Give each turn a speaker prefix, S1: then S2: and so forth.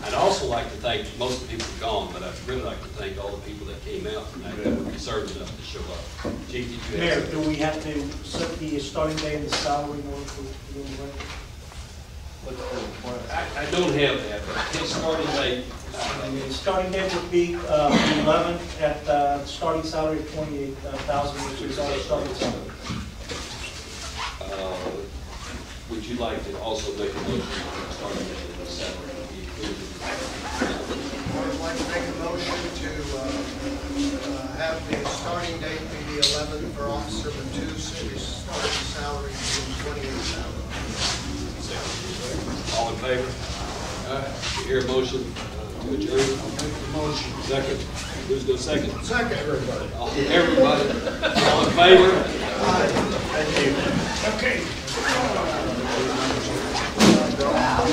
S1: like to thank, most of the people are gone, but I'd really like to thank all the people that came out tonight that were reserved enough to show up. Chief, did you
S2: Mayor,
S1: have?
S2: do we have to set the starting day and the salary one for the new rate?
S1: I, I don't have that, but his starting date, uh,
S2: The starting date would be uh, the 11th at uh, starting salary of 28,000, which is our starting salary.
S1: uh, would you like to also make a motion for the starting date of the salary to be included?
S3: I'd like to make a motion to uh, uh, have the starting date be the 11th for Officer Matus, and his starting salary being 28,000.
S1: All in favor? All right, you hear a motion uh, to adjourn? motion. Second, who's going second?
S3: Second, everybody.
S1: All- Everybody, all in favor?
S3: Thank you.
S4: Okay.